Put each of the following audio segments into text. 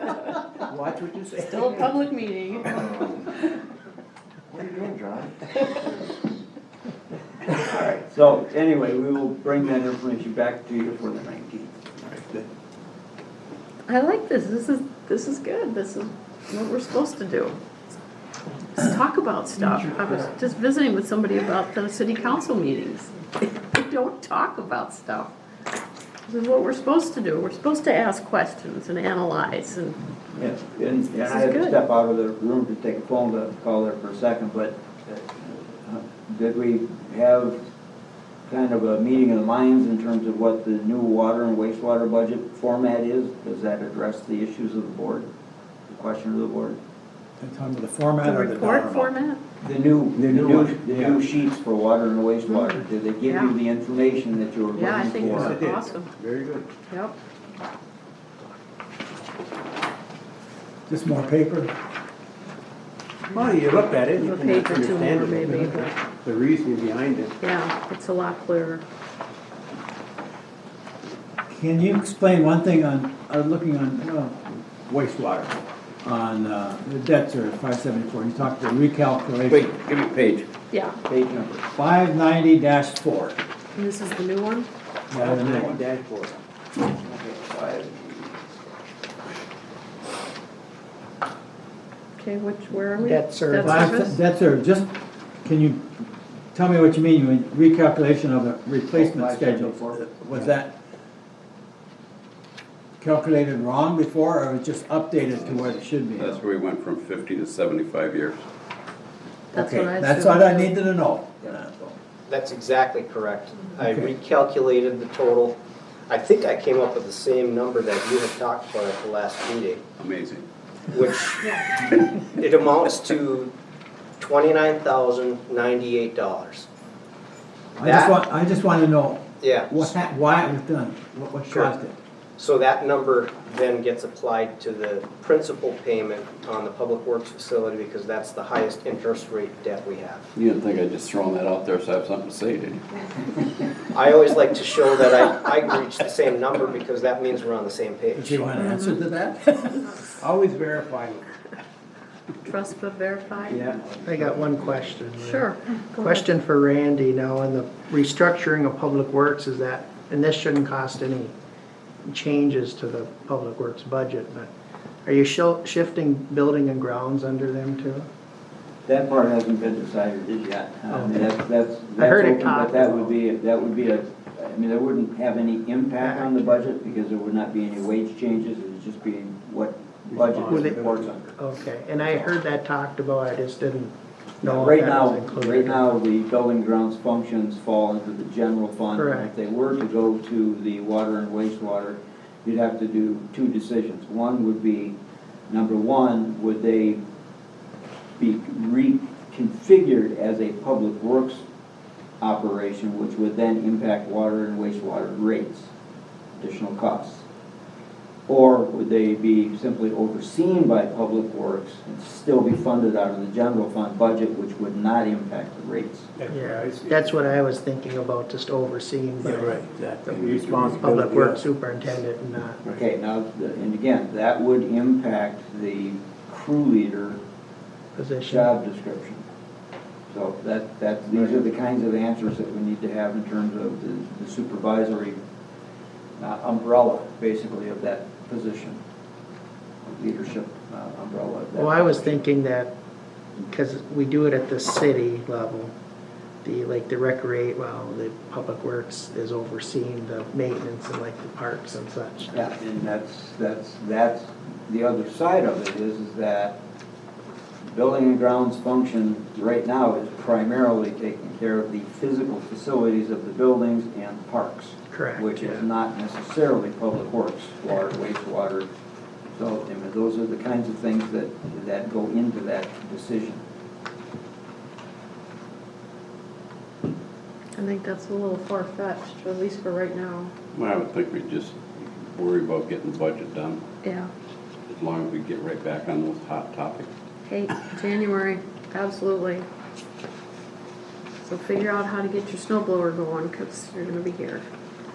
Watch what you say. Still a public meeting. What are you doing, John? So anyway, we will bring that information back to you for the nineteenth. I like this, this is, this is good, this is what we're supposed to do. Just talk about stuff. I was just visiting with somebody about the city council meetings. They don't talk about stuff. This is what we're supposed to do, we're supposed to ask questions and analyze and, Yes, and, and I This had is to good. step out of the room to take a phone to call there for a second, but uh, did we have kind of a meeting of the minds in terms of what the new water and wastewater budget format is? Does that address the issues of the board, the question of the board? In terms of the the format or the dollar report format. amount? The new, the new new, one, the yeah. new sheets for water and wastewater, did they give Yeah. you the information that you were Yeah, I looking think for? it's awesome, Very good. yep. Just more paper? Well, you look at it, you A can page or two more, understand it, maybe, but the reasoning behind it. Yeah, it's a lot clearer. Can you explain one thing on, I was looking on uh, wastewater, on uh, the debt service, five seventy-four, you talked about Wait, recalculation. give me a page. Yeah, Page number. Five ninety four. and this is the new one? Dashboard. Five. Okay, which, where are we? Debt service. Debt service? Debt service, just, can you, tell me what you mean, you mean recalculation of the replacement Five schedule? seventy-four. Was that calculated wrong before, or was just updated to what it should be? That's where we went from fifty to seventy-five years. That's Okay, what I That's assumed. what I needed to know. That's exactly correct. I Okay. recalculated the total. I think I came up with the same number that you had talked about at the last meeting, Amazing. which it amounts to twenty-nine thousand ninety-eight dollars. I just That- want, I just want to know Yeah, what, hap- why it was done, what, what Sure. caused it. so that number then gets applied to the principal payment on the public works facility because that's the highest interest rate debt we have. You didn't think I'd just thrown that out there so I have something to say, did you? I always like to show that I, I reached the same number because that means we're on the same If page. you want an answer to that? Always verify. Trust but verify? Yeah. I got one question. Lynn. Sure. Go ahead. Question for Randy now, on the restructuring of Public Works is that, and this shouldn't cost any changes to the Public Works budget, but are you shil- shifting building and grounds under them too? That part hasn't been decided yet. I mean, that's, that's. I heard that's open, it But talked that about. would be, that would be a, I mean, that wouldn't have any impact on the budget because there would not be any wage changes. It would just be what budget Would it- reports under. Okay, and I heard that talked about, I just didn't know Right if that now, was included. right now, the building grounds functions fall into the general fund. And If Correct. they were to go to the water and wastewater, you'd have to do two decisions. One would be, number one, would they be reconfigured as a public works operation, which would then impact water and wastewater rates, additional costs? Or would they be simply overseen by Public Works and still be funded out of the general fund budget, which would not impact the rates? Yeah, that's what I was thinking about, just overseeing by Yeah, right, the exactly. Public Responsibility. Works Superintendent and not Okay, now, and again, that would impact the crew leader position. job description. So that, that, these are the kinds of answers that we need to have in terms of the- the supervisory uh, umbrella, basically, of that position, leadership uh, umbrella. of that Well, I was position. thinking that, because we do it at the city level, the, like the recreate, well, the public works is overseeing the maintenance and like the parks and such. Yeah, and that's, that's, that's, the other side of it is, is that building and grounds function right now is primarily taking care of the physical facilities of the buildings and parks. Correct, Which is yeah. not necessarily public works, water, wastewater. So, I mean, those are the kinds of things that, that go into that decision. I think that's a little far-fetched, at least for right now. Well, I would think we'd just worry about getting the budget done, Yeah. as long as we get right back on those hot topics. Hey, January, absolutely. So figure out how to get your snow blower going, because you're gonna be here.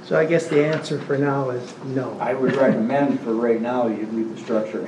So I guess the answer for now is no. I would recommend for right now, you leave the structure